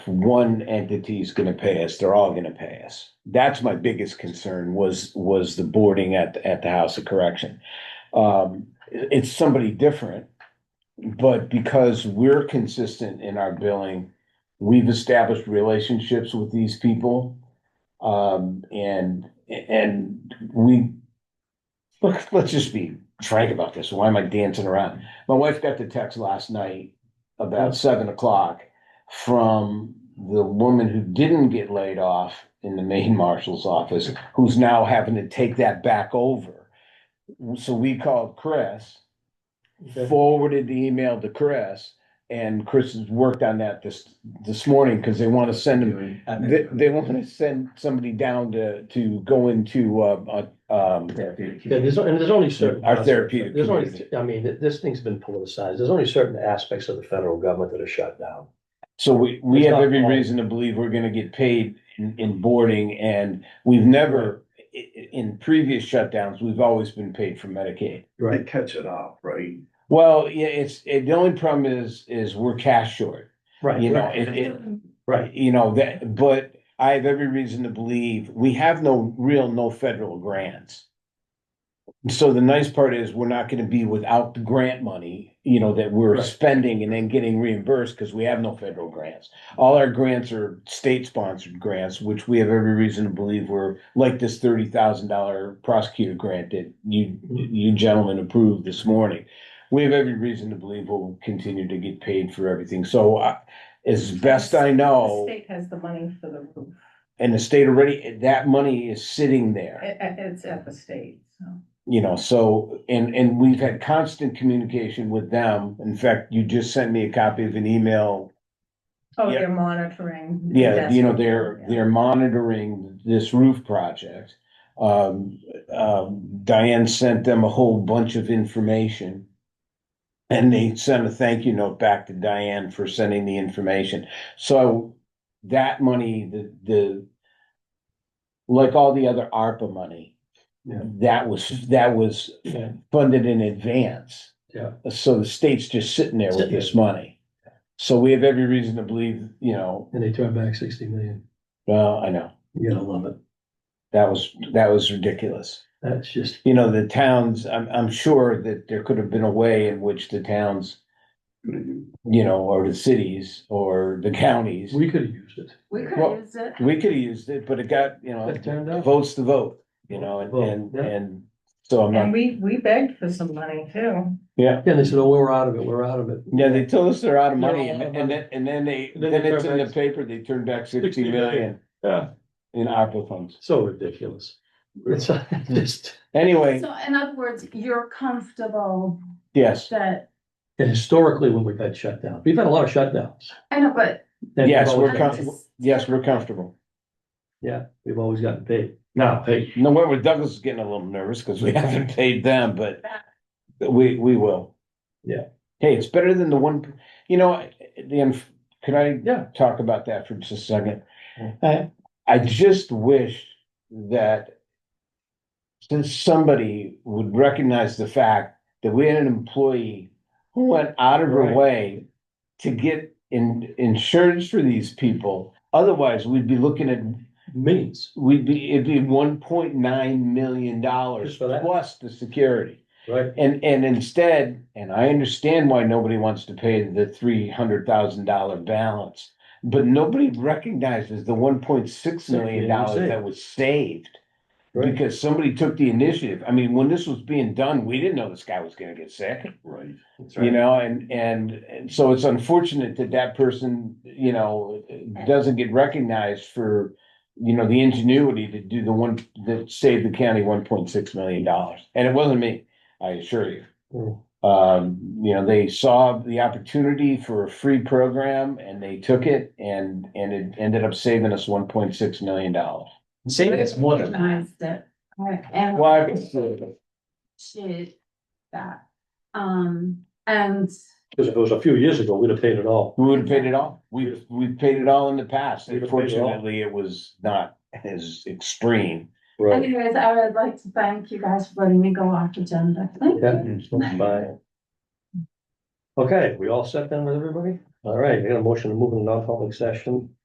one entity's gonna pay us, they're all gonna pay us. That's my biggest concern was, was the boarding at, at the House of Correction. Um, it- it's somebody different, but because we're consistent in our billing, we've established relationships with these people. Um, and, and we, look, let's just be frank about this. Why am I dancing around? My wife got the text last night about seven o'clock from the woman who didn't get laid off in the Maine Marshal's office, who's now having to take that back over. So we called Chris, forwarded the email to Chris, and Chris has worked on that this, this morning, because they want to send him, they, they want to send somebody down to, to go into, uh, uh, um, Yeah, there's, and there's only certain. Our therapeutic There's only, community. I mean, th- this thing's been politicized. There's only certain aspects of the federal government that are shut down. So we, we It's have not every all- reason to believe we're gonna get paid in, in boarding and we've never, i- i- in previous shutdowns, we've always been paid for Medicaid. They catch it up, right? Well, yeah, it's, it, the only problem is, is we're cash short, you Right, know, it, it, right. you know, that, but I have every reason to believe we have no real, no federal grants. So the nice part is we're not gonna be without the grant money, you know, that we're Right. spending and then getting reimbursed because we have no federal grants. All our grants are state-sponsored grants, which we have every reason to believe were like this thirty thousand dollar prosecutor grant that you, you gentlemen approved this morning. We have every reason to believe we'll continue to get paid for everything. So I, as best I know. The state has the money for the roof. And the state already, that money is sitting there, It, it- it's at the state, so. you know, so, and, and we've had constant communication with them. In fact, you just sent me a copy of an email. Oh, Yeah. they're monitoring. Yeah, you know, they're, Yeah. they're monitoring this roof project. Um, um, Diane sent them a whole bunch of information. And they sent a thank you note back to Diane for sending the information. So that money, the, the, like all the other ARPA money, Yeah. that was, that was Yeah. funded in advance. Yeah. So the state's just sitting there with Sitting this money. So we have every reason to believe, you know, And they turn back sixty million. well, I know, You gotta love it. that was, that was ridiculous. That's just, You know, the towns, I'm, I'm sure that there could have been a way in which the towns, you know, or the cities or the counties, we could have used it. We could Well, use it. we could have used it, but it got, you know, It turned out. votes to vote, you know, and, Vote, and, yeah. and so I'm And not, we, we begged for some money too. yeah. Yeah, they said, oh, we're out of it, we're out of it. Yeah, they told us they're out of They're money all and out of and money. then, and then they, And then then they it's turn in the back- paper, they turned back sixty 60 million million. Yeah. in ARPA funds. So ridiculous. It's uh, just Anyway, So in other words, you're comfortable yes, that, and historically when we've had shutdowns, we've had a lot of shutdowns. I know, but. And Yes, we've we're always- com- comfortable. yes, we're comfortable. Yeah, we've always gotten paid. Now, hey, No, wait, well, Douglas is getting a little nervous because we haven't paid them, but we, we will. Yeah. Hey, it's better than the one, you know, the, inf- can I yeah, talk about that for just a second? Yeah. I, I just wish that since somebody would recognize the fact that we had an employee who went out of her Right. way to get in, insurance for these people, otherwise we'd be looking at means, We'd be, it'd be one point nine million dollars Just for that? plus the security. right? And, and instead, and I understand why nobody wants to pay the three hundred thousand dollar balance. But nobody recognizes the one point six million dollars that was saved. Right. Because somebody took the initiative. I mean, when this was being done, we didn't know this guy was gonna get sick. Right. You know, and, and, and so it's unfortunate that that person, you know, doesn't get recognized for, you know, the ingenuity to do the one, that saved the county one point six million dollars. And it wasn't me, I assure you. Mm. Um, you know, they saw the opportunity for a free program and they took it and, and it ended up saving us one point six million dollars. Saving is more than. Recognized it, right, and Why? appreciate that. Um, and Because if it was a few years ago, we'd have paid it all. We would have paid it all. We've, we've paid it all in the past. We'd have paid it all. Fortunately, it was not as extreme. anyways, I would like to thank you guys for letting me go off agenda. Thank you. Yeah. Bye. Okay, we all set then with everybody? All right, I got a motion to move in non-public session